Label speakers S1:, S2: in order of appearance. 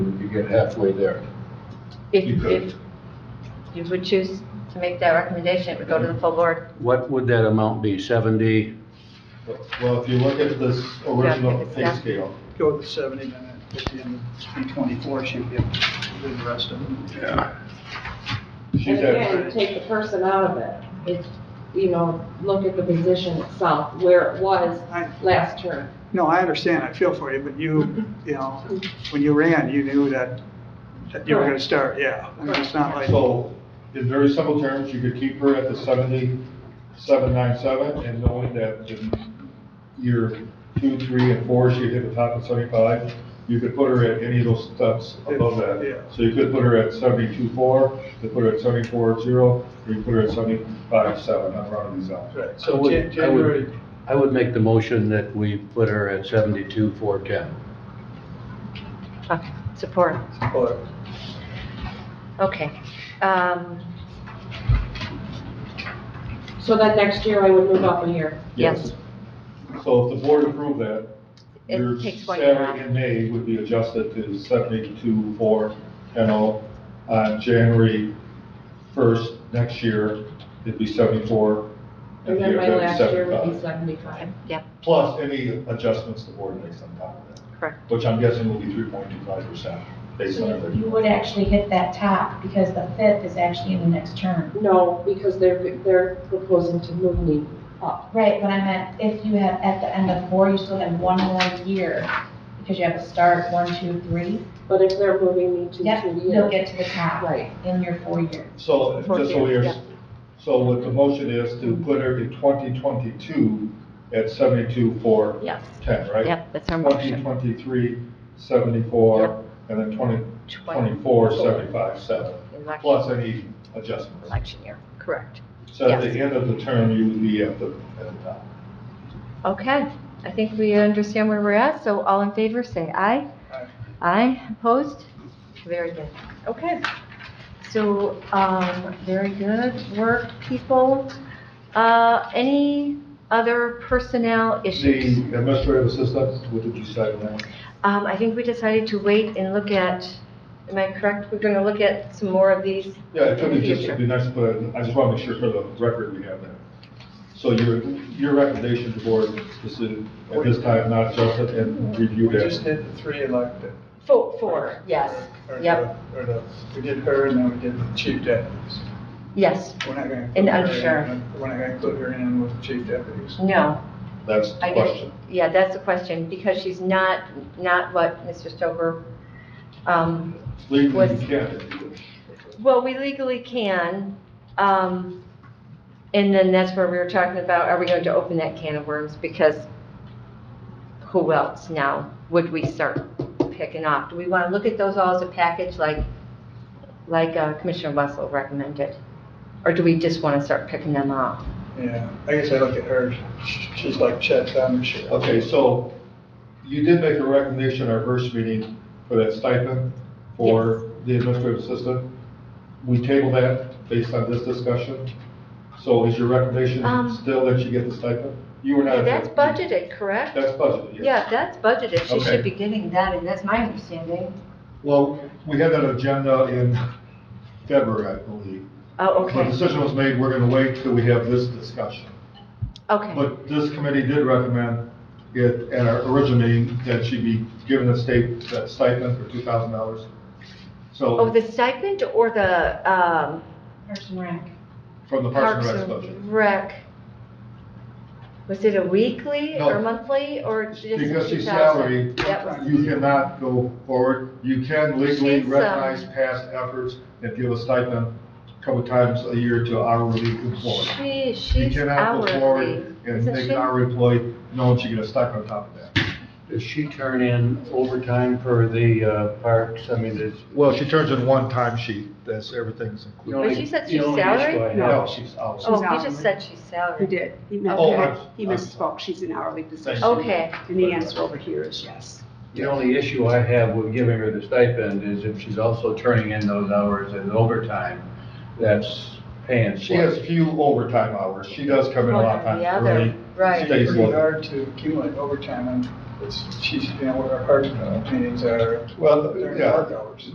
S1: get halfway there. You
S2: If,
S1: could.
S2: if you would choose to make that recommendation, it would go to the full board.
S3: What would that amount be, seventy?
S1: Well, if you look at this original pay
S2: Yeah.
S1: scale,
S4: Go with seventy, and then at the end of three twenty-four, she'd be able to do the rest of it.
S3: Yeah.
S1: she's
S5: And
S1: at,
S5: again, take the person out of it. It's, you know, look at the position itself, where it was last term.
S4: No, I understand, I feel for you, but you, you know, when you ran, you knew that, that you were gonna start, yeah. I mean, it's not like,
S1: so in very simple terms, you could keep her at the seventy-seven nine seven and knowing that in year two, three, and four, she'd hit the top of seventy-five. You could put her at any of those steps above
S4: Yeah.
S1: that. So you could put her at seventy-two four, you could put her at seventy-four zero, or you could put her at seventy-five seven, I'm rounding these out.
S4: right,
S3: I
S4: so
S3: would-
S4: Jan-
S3: I would-
S4: January,
S3: I would make the motion that we put her at seventy-two, four, ten.
S2: Okay, Support,
S4: or,
S2: okay. Um,
S5: So that next year I would move up a year.
S2: Yes.
S1: So if the board approved that,
S2: It
S1: your
S2: takes one year
S1: salary
S2: off.
S1: in May would be adjusted to seventy-two, four, ten oh. On January first next year, it'd be seventy-four. and
S5: And
S1: the
S5: then my
S1: year after,
S5: last year would be
S1: 75.
S5: seventy-five.
S2: Yep,
S1: Plus any adjustments the board makes on top of that,
S2: correct.
S1: which I'm guessing will be three point two five percent based on
S6: So you
S1: everything.
S6: would actually hit that top because the fifth is actually in the next term.
S5: No, because they're, they're proposing to move me up.
S6: Right, but I meant if you have, at the end of four, you still have one more year because you have to start one, two, three.
S5: But if they're moving me to two
S6: Yep,
S5: years.
S6: you'll get to the top
S5: Right.
S6: in your four year.
S1: So
S2: Four
S1: just so
S2: years,
S1: we're,
S2: yeah.
S1: so what the motion is to put her in twenty twenty-two at seventy-two, four,
S2: Yep,
S1: ten, right?
S2: yep, that's our motion.
S1: 2023, 74, and then 2024, 75, 7,
S2: Election
S1: plus any adjustments.
S2: election year, correct.
S1: So at the
S2: yes.
S1: end of the term, you would be at the, at the top.
S2: Okay, I think we understand where we're at, so all in favor, say aye.
S4: Aye.
S2: Aye, opposed? Very good, okay. So, um, very good work, people. Uh, any other personnel
S1: The
S2: issues?
S1: administrative assistant, what did you say now?
S2: Um, I think we decided to wait and look at, am I correct? We're gonna look at some more of these.
S1: Yeah, it could
S2: in
S1: be
S2: the
S1: just,
S2: future.
S1: it'd be nice, but I just want to make sure for the record we have that. So your, your recommendation to board is to, at this time, not adjust it and
S4: we
S1: review
S4: just
S1: that.
S4: did the three elected.
S2: Four, four, yes,
S4: Or the-
S2: yep,
S4: Or the, we did her, and then we did the chief deputies.
S2: yes,
S4: We're not gonna.
S2: And
S4: include her in-
S2: undersheriff.
S4: We're not gonna include her in with the chief deputies.
S2: no.
S1: That's the
S2: I guess,
S1: question.
S2: yeah, that's the question, because she's not, not what Mr. Stover, um,
S1: Legally,
S2: Was-
S1: you can't. if you wish.
S2: well, we legally can, um, and then that's where we were talking about, are we going to open that can of worms? Because who else now would we start picking off? Do we want to look at those all as a package, like, like uh, Commissioner Wessel recommended? Or do we just want to start picking them off?
S4: Yeah, I guess I look at her, she's like Chet Blanchard.
S1: Okay, so you did make a recommendation at our first meeting for that stipend for the administrative assistant. We tabled that based on this discussion. So is your recommendation
S2: Um,
S1: still that you get the stipend? You were not.
S2: That's budgeted, correct?
S1: That's budgeted, yes.
S2: Yeah, that's budgeted, she
S1: Okay.
S2: should be getting that, and that's my understanding.
S1: Well, we had that agenda in February, I believe.
S2: Oh,
S1: The
S2: okay,
S1: decision was made, we're gonna wait till we have this discussion.
S2: okay,
S1: But this committee did recommend it at our original meeting that she be given a state, that stipend for two thousand dollars.
S2: oh,
S1: So,
S2: the stipend or the, um,
S6: Person rec.
S1: from the Parks
S2: Parks
S1: and Rec budget.
S2: and Rec? Was it a weekly
S1: No.
S2: or monthly, or just two thousand?
S1: Because she's salary,
S2: That was,
S1: you cannot go forward. You can legally
S2: She's, um,
S1: recognize past efforts and give a stipend a couple times a year to hourly employees.
S2: she,
S1: You
S2: she's
S1: cannot go
S2: hourly,
S1: forward and
S2: isn't
S1: make
S2: she?
S1: an hourly employee, knowing she get a stipend on top of that.
S3: Does she turn in overtime for the uh, parks? I mean, is.
S1: Well, she turns in one time sheet, that's, everything's
S3: you
S1: included.
S3: only-
S2: But she said
S3: you
S2: she's
S3: only just
S2: salary?
S3: go ahead.
S1: No, she's out.
S7: She's
S2: Oh, he just
S7: hourly.
S2: said she's
S7: He
S2: salary.
S7: did. He meant-
S2: Oh,
S1: I'm-
S7: He
S1: I'm-
S7: misspoke. She's an hourly position.
S2: Okay,
S7: And the answer over here is yes.
S3: The only issue I have with giving her the stipend is if she's also turning in those hours in overtime, that's paying.
S1: She
S3: for it.
S1: has few overtime hours. She does come in a lot of
S2: One or Oh, the
S1: times
S2: other.
S1: early
S2: Right.
S1: Stays
S4: It's
S1: low.
S4: pretty hard to accumulate overtime, and it's, she's, you know, what our part meetings are,
S1: Well,
S4: during
S1: yeah.
S4: work hours.